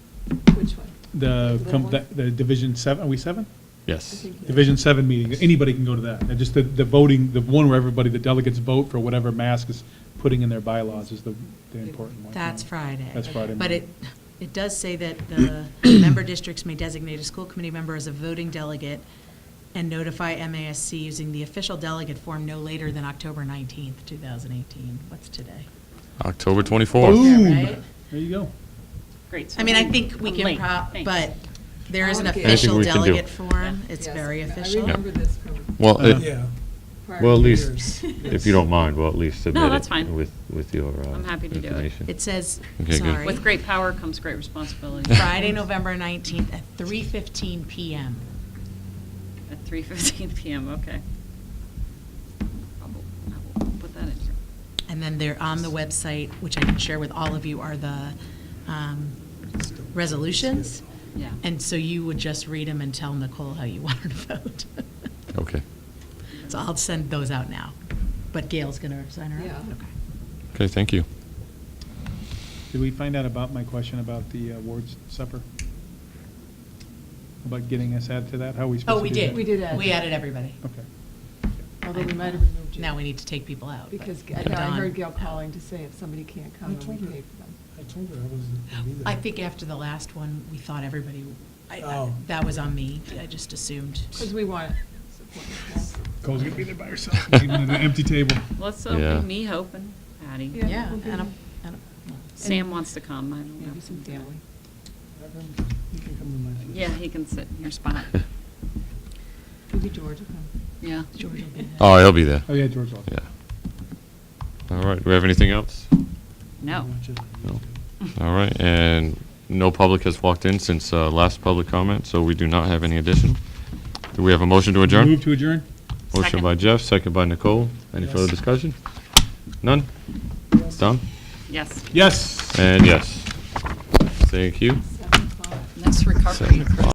the, com- the- the Division Seven, are we seven? Yes. Division Seven meeting, anybody can go to that. And just the, the voting, the one where everybody, the delegates vote for whatever mask is putting in their bylaws is the, the important one. That's Friday. That's Friday But it, morning. it does say that the member districts may designate a school committee member as a voting delegate and notify MASC using the official delegate form no later than October 19th, 2018. What's today? October 24th. Boom. Yeah, right? There you go. Great. I mean, I think we I'm can late. prop, Thanks. but there is an Anything official we can do. delegate form. It's Yes, very I official. remember this from Well, it- Yeah. prior Well, at least, years. if you don't mind, we'll at least submit it. that's fine. With, with your uh, I'm happy to do it. information. It says, Okay, good. sorry. With great power comes great responsibility. Friday, November 19th at 3:15 PM. At 3:15 PM, okay. I will- I will Put that in here. And then they're on the website, which I can share with all of you, are the um, resolutions. Yeah. And so you would just read them and tell Nicole how you want her to vote. Okay. So I'll send those out now. But Gail's going to sign her up? Yeah. Okay. Okay, thank you. Did we find out about my question about the uh, awards supper? About getting us added to that? How are we Oh, supposed we to do that? did. We did add We that. added everybody. Okay. Although we might have removed you. Now we need to take people out. but- Because I but thought I Dawn- heard Gail calling to say if somebody can't I come, then told we her. pay for them. I told her I wasn't gonna be there. I think after the last one, we thought everybody, I- I- Oh. that was on me. I just assumed. Because we want support. Cole's gonna be there by herself, leaving an empty table. Let's Yeah. open me hoping, Patty. Yeah, Yeah. we'll be- and I'm- and I'm- well, Sam wants to come, I don't know. Maybe some family. Evan, You can come to my place. Yeah, he can sit in your spot. Maybe George will come. Yeah. George will be there. Oh, he'll be there. Oh, yeah, George Lawson. Yeah. All right, do we have anything else? No. Watch it on No. YouTube. All right, and no public has walked in since uh, last public comment, so we do not have any addition. Do we have a motion to adjourn? Move to adjourn? Motion Second. by Jeff, second by Nicole. Any Yes. further discussion? None? Done? Yes. Yes. And yes. Thank you. Seven o'clock. Nice recovery. Seven o'clock.